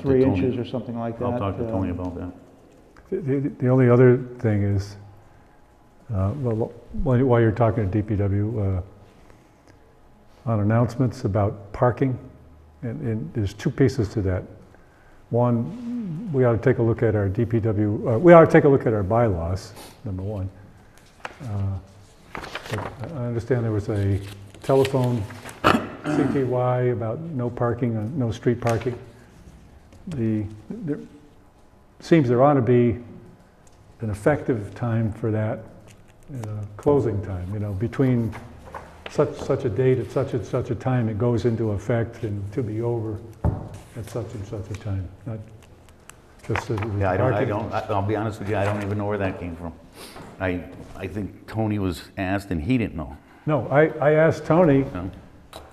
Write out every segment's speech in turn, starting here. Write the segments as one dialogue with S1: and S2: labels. S1: three
S2: Tony.
S1: inches or something like that.
S2: I'll talk to
S1: uh,
S2: Tony about that.
S3: The- The the only other thing is, uh, well, while while you're talking to DPW, uh, on announcements about parking, and- and there's two pieces to that. One, we ought to take a look at our DPW, uh, we ought to take a look at our bylaws, number one. Uh, but I I understand there was a telephone CTY about no parking, uh, no street parking. The, there- seems there ought to be an effective time for that, and a closing time, you know, between such, such a date at such and such a time, it goes into effect and to be over at such and such a time, not just that it was
S2: Yeah, I don't, I
S3: parking.
S2: don't, I- I'll be honest with you, I don't even know where that came from. I, I think Tony was asked and he didn't know,
S3: No, I, I asked Tony,
S2: you know?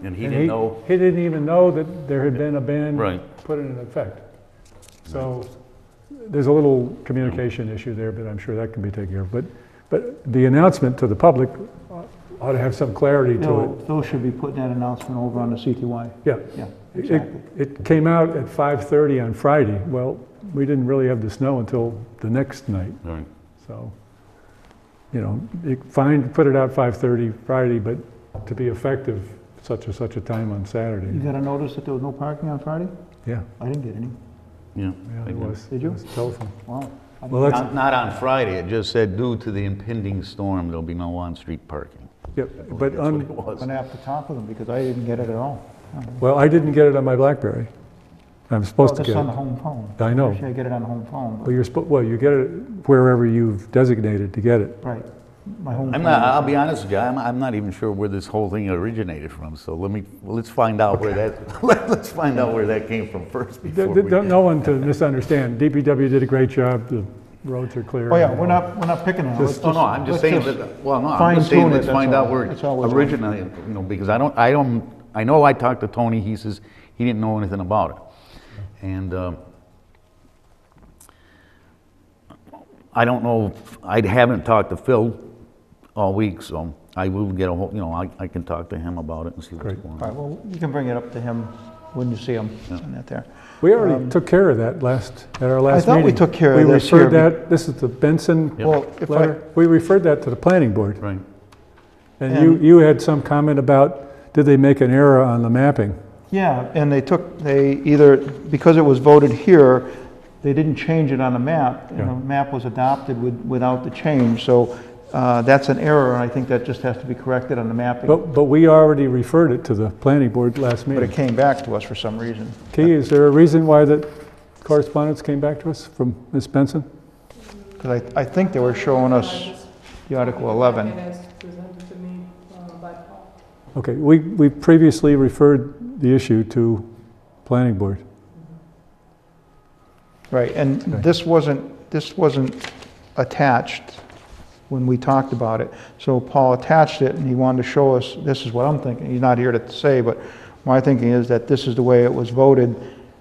S2: And he
S3: and
S2: didn't know,
S3: He didn't even know that there had been a ban
S2: right,
S3: put it in effect. So there's a little communication issue there, but I'm sure that can be taken care of. But, but the announcement to the public ought to have some clarity to it.
S1: No, Those should be putting that announcement over on the CTY,
S3: Yeah,
S1: yeah,
S3: It-
S1: exactly.
S3: it came out at 5:30 on Friday. Well, we didn't really have the snow until the next night,
S2: right.
S3: so, you know, it- fine, put it out 5:30 Friday, but to be effective, such and such a time on
S1: You
S3: Saturday.
S1: got a notice that there was no parking on Friday?
S3: Yeah,
S1: I didn't get any,
S2: yeah.
S3: yeah,
S2: I
S3: it
S2: did.
S3: was.
S1: Did you?
S3: It was telephone.
S1: wow. I didn't-
S3: Well, that's,
S2: Not, not on Friday, it just said due to the impending storm, there'll be no on-street parking.
S3: yeah, but
S2: That's
S3: on,
S2: what it was.
S1: I'm gonna have to talk with them because I didn't get it at all.
S3: Well, I didn't get it on my BlackBerry. I'm supposed to
S1: This
S3: get
S1: on the
S3: it.
S1: home phone.
S3: I know.
S1: Usually I get it on home phone,
S3: Oh. Well, you're, spo- well, you get it wherever you've designated to get it.
S1: but, right, my home phone.
S2: I'm not, I'll be honest with you, I'm, I'm not even sure where this whole thing originated from, so let me, let's find out where that, let's find out where that came from first before
S3: Th-
S2: we.
S3: th- don't- No one to misunderstand. DPW did a great job. The roads are clear.
S1: Oh, yeah, we're not, we're not picking on it.
S3: Just-
S1: Let's
S2: Oh, No, no, I'm just
S1: let's
S2: saying, that- well, no, I'm just saying,
S1: fine-tune it,
S2: let's
S1: that's
S2: find
S1: all.
S2: out where it
S1: That's all we're doing.
S2: originated, you know, because I don't, I don't, I know I talked to Tony, he says he didn't know anything about it. And, um, I don't know, if- I haven't talked to Phil all week, so I will get a hold, you know, I, I can talk to him about it and see what's
S3: Great.
S2: going
S1: All
S2: on.
S1: right, well, you can bring it up to him when you see him, send that there.
S3: We already took care of that last, at our last meeting.
S1: um, thought we took care of
S3: We
S1: this here
S3: referred
S1: be-
S3: that, this is the Benson
S2: Yep.
S1: Well, if I,
S3: letter. We referred that to the planning board.
S2: Right,
S3: And you,
S1: And-
S3: you had some comment about, did they make an error on the mapping?
S1: yeah, and they took, they either, because it was voted here, they didn't change it on the map, and the
S3: Yeah.
S1: map was adopted with, without the change, so uh, that's an error, and I think that just has to be corrected on the mapping.
S3: But, but we already referred it to the planning board last
S1: But
S3: meeting.
S1: it came back to us for some reason.
S3: Key, is there a reason why that correspondence came back to us from Ms. Benson?
S1: Because I, I think they were showing us the Article 11.
S4: It is presented to me uh, by Paul.
S3: Okay, we, we previously referred the issue to planning board.
S1: Right, and
S3: Okay.
S1: this wasn't, this wasn't attached when we talked about it. So Paul attached it, and he wanted to show us, this is what I'm thinking, he's not here to say, but my thinking is that this is the way it was voted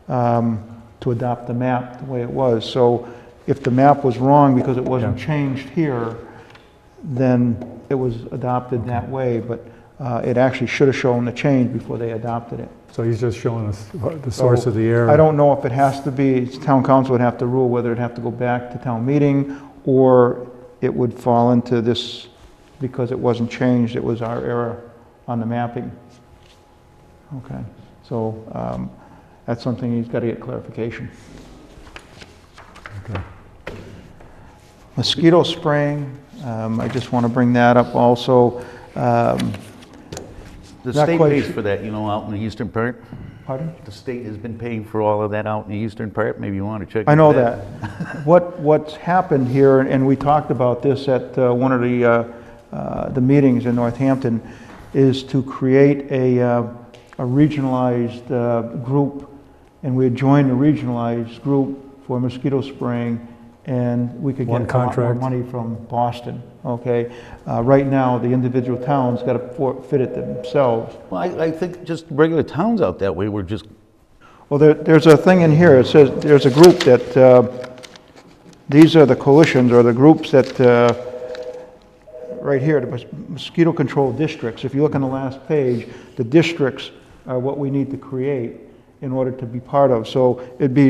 S1: um, to adopt the map the way it was. So if the map was wrong because it wasn't changed here, then it was adopted that way, but uh, it actually should have shown the change before they adopted it.
S3: So he's just showing us the source of the error.
S1: I don't know if it has to be, town council would have to rule whether it'd have to go back to town meeting, or it would fall into this, because it wasn't changed, it was our error on the mapping. Okay, so, um, that's something he's gotta get clarification.
S3: Okay.
S1: Mosquito spraying, um, I just wanna bring that up also, um,
S2: the
S1: Not
S2: state
S1: quite
S2: pays
S1: sure.
S2: for that, you know, out in the eastern part,
S1: pardon?
S2: the state has been paying for all of that out in the eastern part, maybe you want to check.
S1: I
S2: into
S1: know that. What, what's happened here, and we talked about this at uh, one of the, uh, uh, the meetings in Northampton, is to create a, uh, a regionalized uh, group, and we had joined a regionalized group for mosquito spraying, and we could get
S3: One
S1: a lot more
S3: contract.
S1: money from Boston, okay? Uh, Right now, the individual towns got to fit it themselves.
S2: Well, I, I think just regular towns out that way were just,
S1: Well, there, there's a thing in here, it says, there's a group that, uh, these are the coalitions or the groups that, uh, right here, the mos- mosquito control districts. If you look on the last page, the districts are what we need to create in order to be part of. So it'd be